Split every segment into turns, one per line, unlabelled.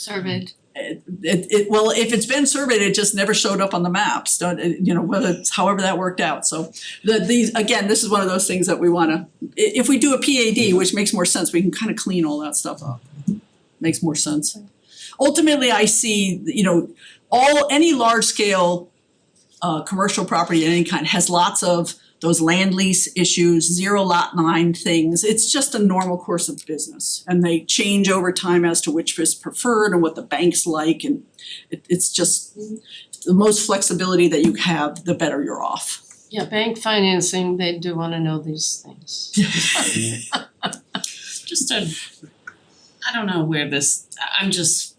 surveyed.
it it well, if it's been surveyed, it just never showed up on the maps, don't it, you know, whether it's however that worked out, so the these, again, this is one of those things that we wanna, i- if we do a PAD, which makes more sense, we can kind of clean all that stuff up. Makes more sense. Ultimately, I see, you know, all any large scale uh commercial property of any kind has lots of those land lease issues, zero lot line things. It's just a normal course of business. And they change over time as to which is preferred and what the banks like and it it's just the most flexibility that you have, the better you're off.
Yeah, bank financing, they do wanna know these things.
just a, I don't know where this, I- I'm just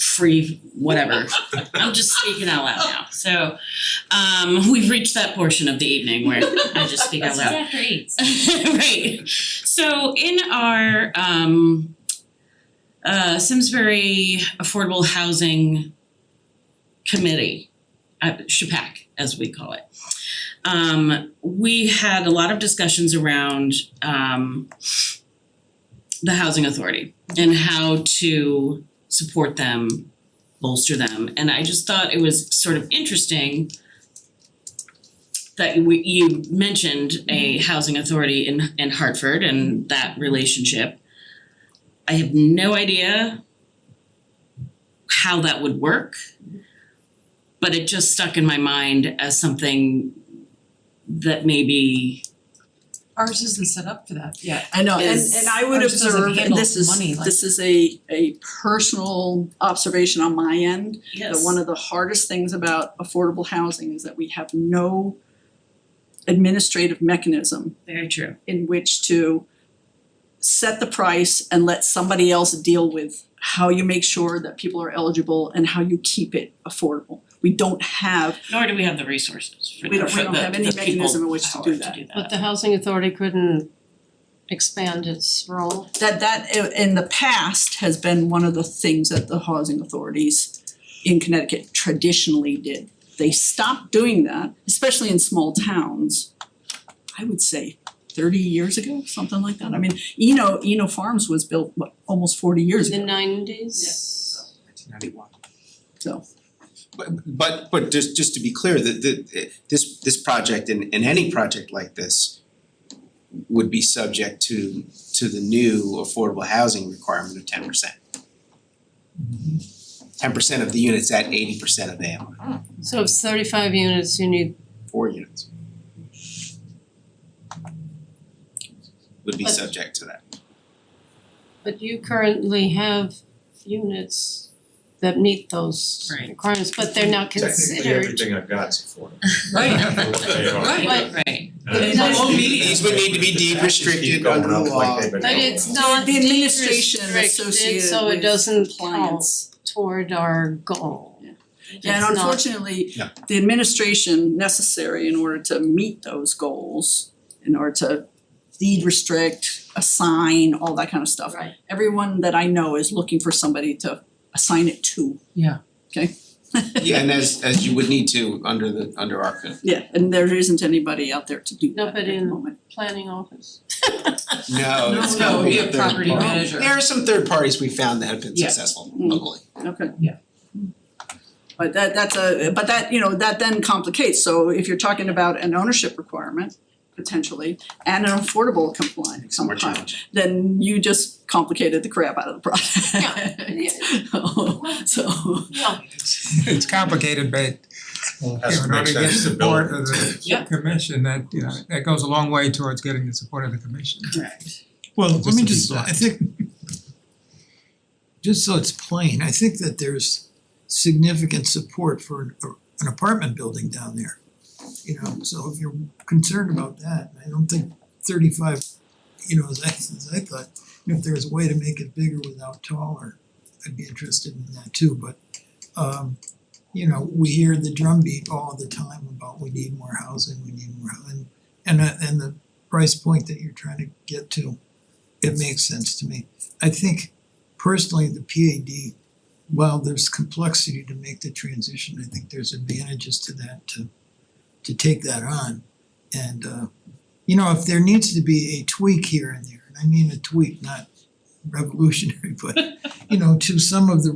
free, whatever. I'm just speaking out loud now. So, um, we've reached that portion of the evening where I just speak out loud.
after eight.
right. So in our um uh Simsbury Affordable Housing Committee, uh SHPAC as we call it. Um we had a lot of discussions around um the housing authority and how to support them, bolster them. And I just thought it was sort of interesting that we you mentioned a housing authority in in Hartford and that relationship. I have no idea how that would work, but it just stuck in my mind as something that maybe
Ours isn't set up for that yet.
I know, and
Is-
and I would
Ours doesn't
observe, and
handle
this is,
money like-
this is a a personal observation on my end.
yes.
That one of the hardest things about affordable housing is that we have no administrative mechanism
very true.
in which to set the price and let somebody else deal with how you make sure that people are eligible and how you keep it affordable. We don't have,
Nor do we have the resources for
we
the
don't,
for
we don't
the-
have any
the people
mechanism in which to
power
do that.
But the housing authority couldn't expand its role.
That that i- in the past has been one of the things that the housing authorities in Connecticut traditionally did. They stopped doing that, especially in small towns, I would say thirty years ago, something like that. I mean, Eno, Eno Farms was built, what, almost forty years ago.
In the nineties.
So.
But but but just just to be clear, that that this this project and and any project like this would be subject to to the new affordable housing requirement of ten percent. Ten percent of the units at eighty percent of AMI,
So if it's thirty-five units, you need,
four units. Would be
But-
subject to that.
but you currently have units that meet those
Right.
requirements, but they're not
Technically,
considered.
everything I've got's affordable.
Right.
for what they are.
Right.
Right, right.
And
But
I
it
think
does-
These would need to be deed
Taxes keep
restricted
going
under the
up like
law.
they've been
But
going
it's
up.
not
The administration
de-restricted,
associated
so it
with
doesn't count
clients.
toward our goal.
Yeah.
It's
And
not-
unfortunately,
Yeah.
the administration necessary in order to meet those goals, in order to deed restrict, assign, all that kind of stuff.
Right.
Everyone that I know is looking for somebody to assign it to.
Yeah.
Okay?
Yeah, and as as you would need to under the under our code.
Yeah, and there isn't anybody out there to do that at
Nobody
the
in-
moment.
Planning office.
No,
no,
it's gotta be a
be a
third
property
party.
manager.
There are some third parties we found that have been
Yeah.
successful
Mm.
locally.
Okay.
Yeah.
But that that's a, but that, you know, that then complicates, so if you're talking about an ownership requirement potentially and an affordable compliant
Makes it more
compliant,
challenging.
then you just complicated the crap out of the process. So,
it's complicated, but
Has
in order
to make
to get
sense to
support
build.
of the
Yep.
commission, that, you know, that goes a long way towards getting the support of the commission.
Correct.
Well, let
Just
me
to be
just, I
blunt.
think, just so it's plain, I think that there's significant support for an- an apartment building down there. You know, so if you're concerned about that, I don't think thirty-five, you know, as I, as I thought, if there's a way to make it bigger without taller, I'd be interested in that too, but um, you know, we hear the drumbeat all the time about we need more housing, we need more, housing, and uh, and the price point that you're trying to get to, it makes sense to me. I think personally, the PAD, while there's complexity to make the transition, I think there's advantages to that to to take that on. And uh, you know, if there needs to be a tweak here and there, and I mean a tweak, not revolutionary, but you know, to some of the